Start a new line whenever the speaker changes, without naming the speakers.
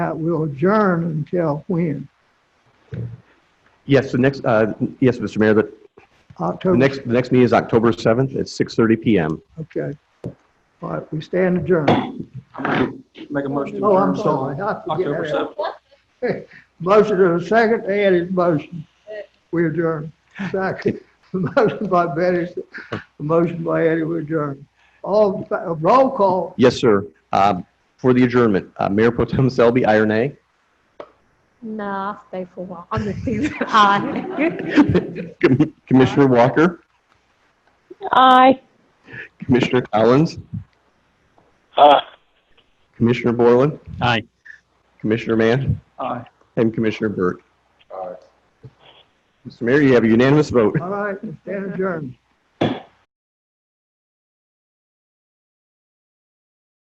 Uh, We'll adjourn until when?
Yes, the next, uh, yes, Mr. Mayor, the the
October?
next, the next meeting is October 7th at 6:30 PM.
Okay. All right, we stand adjourned.
Make a motion to
Oh, I'm
adjourn till
sorry. I forget
October
that.
seventh.
Motion and a second, Ed is motion. We adjourn. Second, motion by Betty, motion by Eddie, we adjourn. All, in fa- roll call,
Yes, sir. Um, For the adjournment, uh, Mayor Pro Tem Selby, aye or nay?
No, I'll stay for a while. I'm just teasing. Aye.
Com- Commissioner Walker,
Aye.
Commissioner Collins,
Aye.
Commissioner Borland,
Aye.
Commissioner Mann,
Aye.
and Commissioner Burke. Mr. Mayor, you have a unanimous vote.
all right, stand adjourned.